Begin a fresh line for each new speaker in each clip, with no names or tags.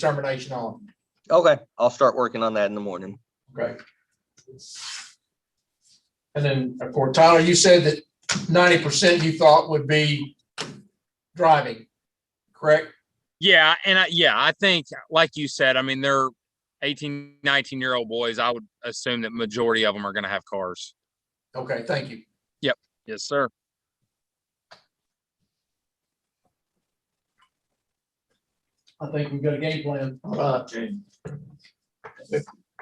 determination on.
Okay, I'll start working on that in the morning.
Great. And then, of course, Tyler, you said that ninety percent you thought would be driving, correct?
Yeah, and I, yeah, I think like you said, I mean, they're 18, 19 year old boys. I would assume that majority of them are going to have cars.
Okay, thank you.
Yes, sir.
I think we've got a game plan.
All right, Jane.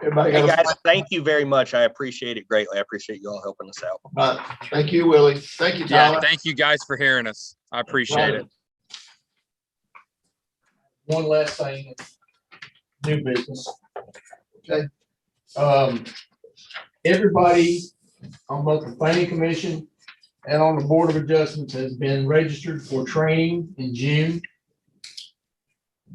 Everybody
Hey,
got
guys,
a,
thank you very much. I appreciate it greatly. I appreciate you all helping us out.
all right. thank you, Willie. Thank you,
Yeah,
Tyler.
thank you guys for hearing us. I appreciate it.
One last thing, new business.
Okay.
Um, everybody on both the planning commission and on the board of adjustments has been registered for training in June.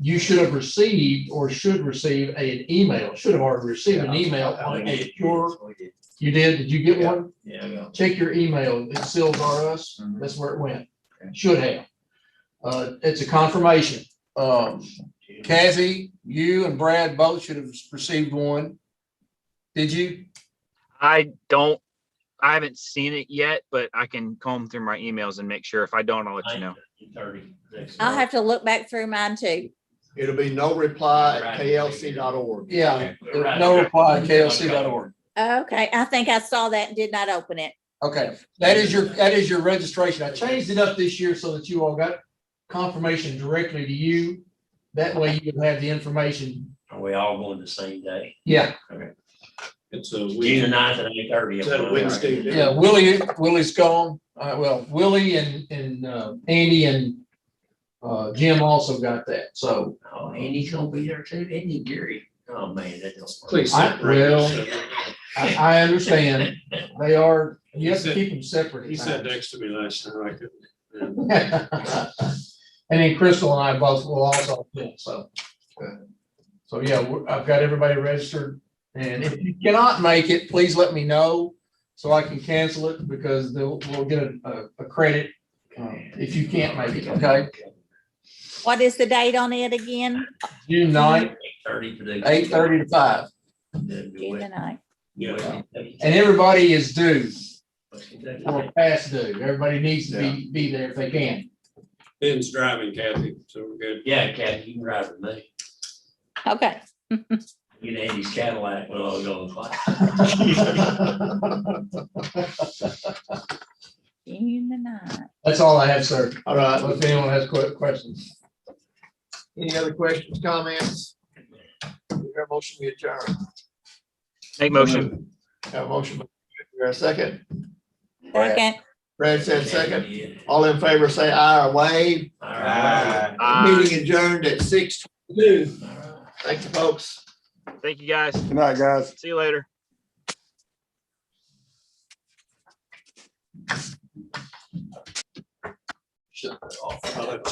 You should have received or should receive a- an email, should have already received an email on a pure, you did, did you get one?
Yeah.
check your email, it seals R us, that's where it went, should have. Uh, it's a confirmation, um, Kathy, you and Brad both should have received one. Did you?
I don't, I haven't seen it yet, but I can comb through my emails and make sure. If I don't, I'll let you know.
I'll have to look back through mine too.
It'll be no reply at klc.org.
Yeah, no reply, klc.org.
Okay, I think I saw that and did not open it.
Okay, that is your, that is your registration. I changed it up this year so that you all got confirmation directly to you. That way you can have the information.
Are we all going the same day?
Yeah,
It's a
June
weekend.
ninth at eight thirty. Oh,
Is that a Wednesday?
yeah, Willie, Willie's gone. Uh, well, Willie and, and, uh, Andy and, uh, Jim also got that, so.
Oh, Andy's gonna be there too, Andy Gary. Oh, man, that doesn't. work.
Please.
I, well, I, I understand. They are, you have to
He said-
keep them separate.
He
at
sat
times.
next to me last time, I couldn't. and
And then Crystal and I both will also, fill, so. uh, So, yeah, we're- I've got everybody registered. And if you cannot make it, please let me know so I can cancel it because they'll, we'll get a, a- a credit um, if you can't make it, okay?
What is the date on it again?
June ninth,
Thirty for the.
eight thirty to five.
June the ninth.
And everybody is due, or past due. Everybody needs to be, be there if they can.
Ben's driving Kathy, so we're good.
Yeah, Kathy, you can ride with me.
Okay,
Get Andy's Cadillac when I was going to class.
June the ninth.
That's all I have, sir.
All right.
If anyone has que- questions.
Any other questions, comments? Is there a motion we adjourn?
Make motion.
Got a motion. by- Is there a second?
Second.
Brad said second. All in favor, say aye or wave.
All right.
Aye.
Meeting adjourned at six twenty-two. Thank you, folks.
Thank you, guys.
Good night, guys.
See you later.
I'll let